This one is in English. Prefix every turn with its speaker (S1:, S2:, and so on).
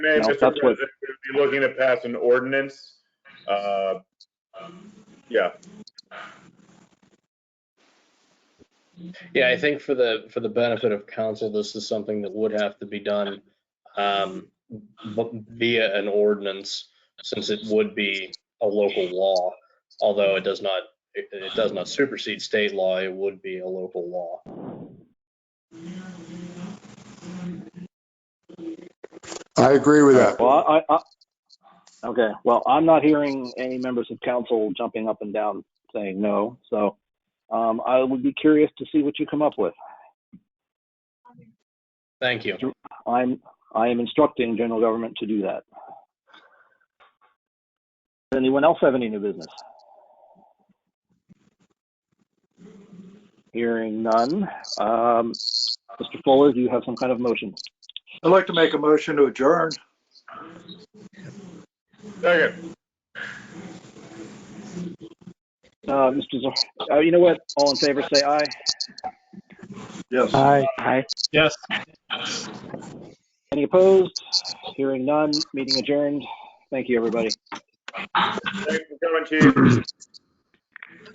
S1: Mayor, Mr.
S2: No, that's what-
S1: President, we'd be looking to pass an ordinance. Uh, Yeah,
S3: Yeah, I think for the, for the benefit of council, this is something that would have to be done um, v- via an ordinance, since it would be a local law, although it does not, it- it does not supersede state law, it would be a local law.
S4: I agree with that.
S2: Well, I, I, I- okay, well, I'm not hearing any members of council jumping up and down saying no, so um, I would be curious to see what you come up with.
S3: Thank you.
S2: I'm, I am instructing general government to do that. Does Anyone else have any new business? Hearing none. Um, Mr. Fuller, do you have some kind of motion?
S5: I'd like to make a motion to adjourn.
S1: second,
S2: Uh, Mr. Zah, uh, you know what? All in favor, say aye.
S5: Yes.
S2: Aye.
S3: Yes.
S2: Any opposed? Hearing none, meeting adjourned. Thank you, everybody.
S1: thanks for coming, chief.